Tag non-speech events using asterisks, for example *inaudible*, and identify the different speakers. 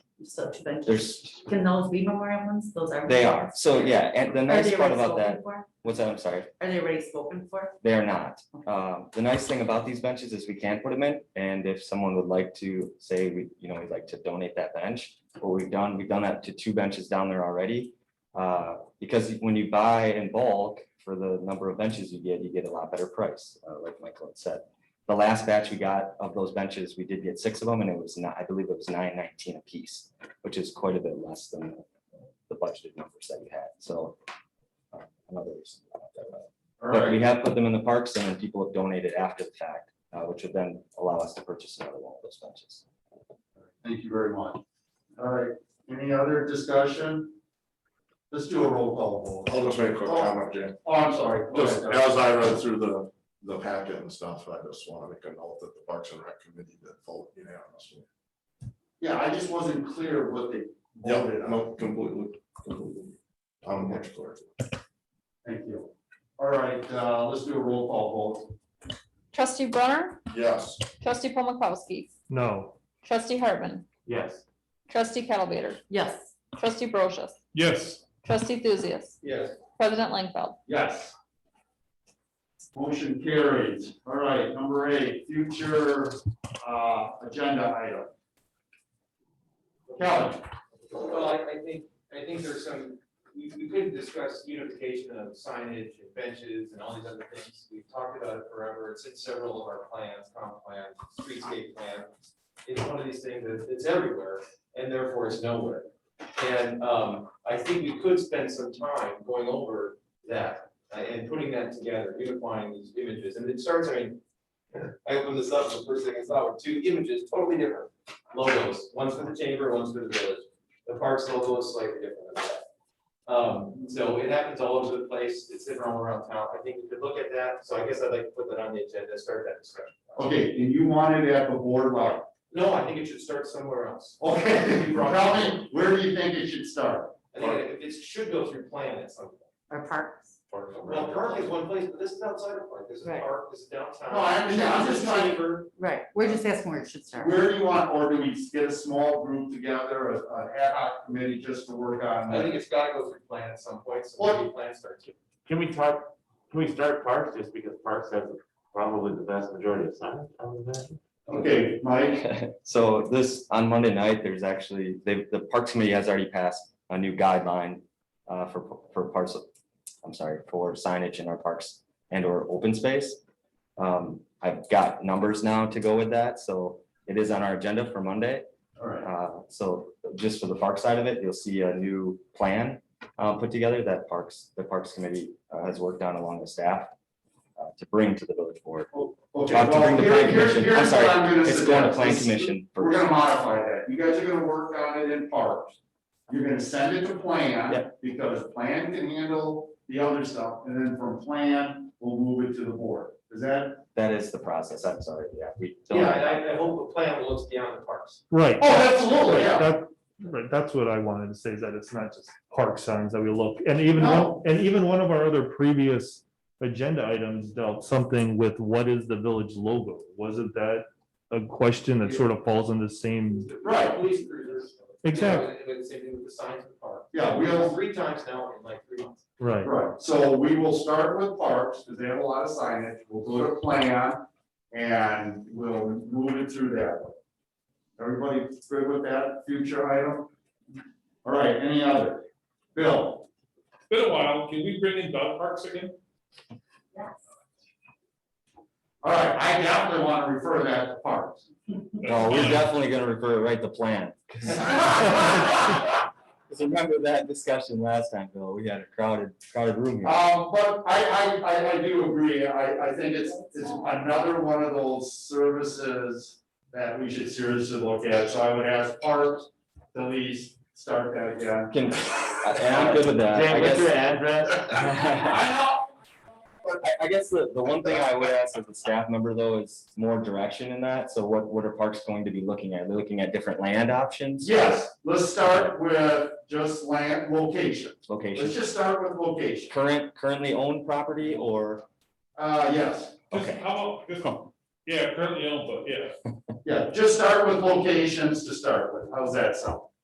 Speaker 1: such benches.
Speaker 2: There's,
Speaker 1: Can those be memorial ones? Those are.
Speaker 2: they are, so yeah, and the
Speaker 1: memorials. Are
Speaker 2: nice
Speaker 1: they
Speaker 2: part
Speaker 1: already
Speaker 2: about that,
Speaker 1: spoken for?
Speaker 2: what's that, I'm sorry,
Speaker 1: Are they already spoken for?
Speaker 2: they are not. Um, the nice thing about these benches is we can put them in, and if someone would like to say, we, you know, we'd like to donate that bench, what we've done, we've done that to two benches down there already. Uh, because when you buy in bulk for the number of benches you get, you get a lot better price, uh, like Michael had said. The last batch we got of those benches, we did get six of them, and it was not, I believe it was nine nineteen apiece, which is quite a bit less than the budgeted numbers that we had, so. uh, Another reason. to have that.
Speaker 3: All
Speaker 2: But we
Speaker 3: right,
Speaker 2: have put them in the parks and then people have donated after the fact, uh, which would then allow us to purchase another one of those benches.
Speaker 3: thank you very much. All right, any other discussion? Let's do a roll call vote.
Speaker 4: I'll just make a quick comment, Jan.
Speaker 3: Oh, I'm sorry. Go
Speaker 4: Just
Speaker 3: ahead, Doug.
Speaker 4: as I read through the, the packet and stuff, I just want to make a note that the Parks and Rec Committee did vote unanimously.
Speaker 3: Yeah, I just wasn't clear what they voted
Speaker 4: Yeah,
Speaker 3: on.
Speaker 4: no, completely, completely. I'm much clearer.
Speaker 3: Thank you. All right, uh, let's do a roll call vote.
Speaker 5: Trustee Brunner,
Speaker 4: Yes,
Speaker 5: trustee Paul Mikowski,
Speaker 6: No.
Speaker 5: trustee Hartman,
Speaker 6: Yes.
Speaker 5: trustee Kettlebaiter,
Speaker 1: Yes,
Speaker 5: trustee Brochus,
Speaker 6: Yes.
Speaker 5: trustee Thuzius,
Speaker 3: Yes.
Speaker 5: president Langfeld.
Speaker 3: Yes. Motion carries. All right, number eight, future, uh, agenda item. Kelly,
Speaker 7: Well, I, I think, I think there's some, we, we could discuss unification of signage and benches and all these other things. We've talked about it forever. It's in several of our plans, comp plan, streetscape plan. It's one of these things that it's everywhere and therefore it's nowhere. And, um, I think we could spend some time going over that uh, and putting that together, unifying these images. And it starts, I mean, I opened this up, the first thing I saw were two images, totally different logos. One's for the chamber, one's for the village the parks logo is slightly different than that. Um, so it happens all over the place, it's hidden all around town, I think we could look at that, so I guess I'd like to put that on the agenda, start that discussion.
Speaker 3: okay, and you wanted at the board level.
Speaker 7: No, I think it should start somewhere else.
Speaker 3: Okay, *laughs*
Speaker 7: You brought-
Speaker 3: tell me, where do you think it should start?
Speaker 7: I think it, it should go through plan at some point.
Speaker 1: our parks.
Speaker 7: Well, park is one place, but this is outside of park, this is
Speaker 1: Right.
Speaker 7: park, this is downtown.
Speaker 3: No, I understand. I'm just trying-
Speaker 7: Chamber.
Speaker 1: Right, we're just asking where it should start.
Speaker 3: Where do you want, or do we get a small group together, a, a ad hoc committee just to work on?
Speaker 7: I
Speaker 3: it?
Speaker 7: think it's gotta go through plan at some point, so maybe plan starts here.
Speaker 6: Can we talk, can we start Parks just because Parks has probably the vast majority of signs? I would imagine?
Speaker 3: Okay, Mike,
Speaker 2: So this, on Monday night, there's actually, they, the Parks Committee has already passed a new guideline uh, for, for parts of, I'm sorry, for signage in our parks and or open space. Um, I've got numbers now to go with that, so it is on our agenda for Monday.
Speaker 3: all right,
Speaker 2: Uh, So just for the park side of it, you'll see a new plan uh, put together that Parks, the Parks Committee uh, has worked on along with staff uh, to bring to the village board.
Speaker 3: okay,
Speaker 2: Uh, to
Speaker 3: well,
Speaker 2: bring the
Speaker 3: here,
Speaker 2: plan
Speaker 3: here's,
Speaker 2: commission, I'm
Speaker 3: here's what I'm
Speaker 2: sorry,
Speaker 3: gonna
Speaker 2: it's going to
Speaker 3: suggest.
Speaker 2: plan
Speaker 3: Let's-
Speaker 2: commission
Speaker 3: We're
Speaker 2: first.
Speaker 3: gonna modify that. You guys are gonna work on it in parts. You're gonna send it to plan, because plan can handle the other stuff, and then from plan, we'll move it to the board. Is that?
Speaker 2: That is the process, I'm sorry, yeah, we
Speaker 7: Yeah,
Speaker 2: don't,
Speaker 7: and I, I hope the plan looks beyond the parks.
Speaker 6: Right.
Speaker 3: Oh, absolutely, yeah.
Speaker 6: That- Right, that's what I wanted to say, is that it's not just park signs that we look, and even one,
Speaker 3: No.
Speaker 6: and even one of our other previous agenda items dealt something with what is the village logo? Wasn't that a question that sort of falls in the same?
Speaker 3: Right.
Speaker 7: Police cruisers.
Speaker 6: Exactly,
Speaker 7: Yeah, and the same thing with the signs of the park.
Speaker 3: Yeah,
Speaker 7: We have
Speaker 3: we'll,
Speaker 7: three times now in like three months.
Speaker 6: right.
Speaker 3: right, so we will start with parks, because they have a lot of signage, we'll go to plan, and we'll move it through that. way. Everybody good with that future item? All right, any other? Bill?
Speaker 8: Been a while, can we bring in dog parks again?
Speaker 3: All right, I definitely want to refer that to parks.
Speaker 2: no, we're definitely gonna refer it right to plan.
Speaker 3: Um,
Speaker 2: Because remember that discussion last time, Bill, we had a crowded, crowded room here.
Speaker 3: Uh, Um, but I, I, I, I do agree, I, I think it's, it's another one of those services that we should seriously look at, so I would ask parks, to at least start that again.
Speaker 2: Can, and I'm good with that, Uh, I guess.
Speaker 6: address?
Speaker 2: *laughs* I I guess the, the one thing I would ask as a staff member though is more direction in that. So what, what are parks going to be looking at? They're looking at different land options?
Speaker 3: Yes, let's start with just land location, let's
Speaker 2: Locations,
Speaker 3: just start with location,
Speaker 2: current, currently owned property or,
Speaker 3: uh, yes,
Speaker 8: Just
Speaker 2: Okay.
Speaker 8: How about this one? Yeah, currently owned, but yeah.
Speaker 3: yeah, just start with locations to start with, how's that sound?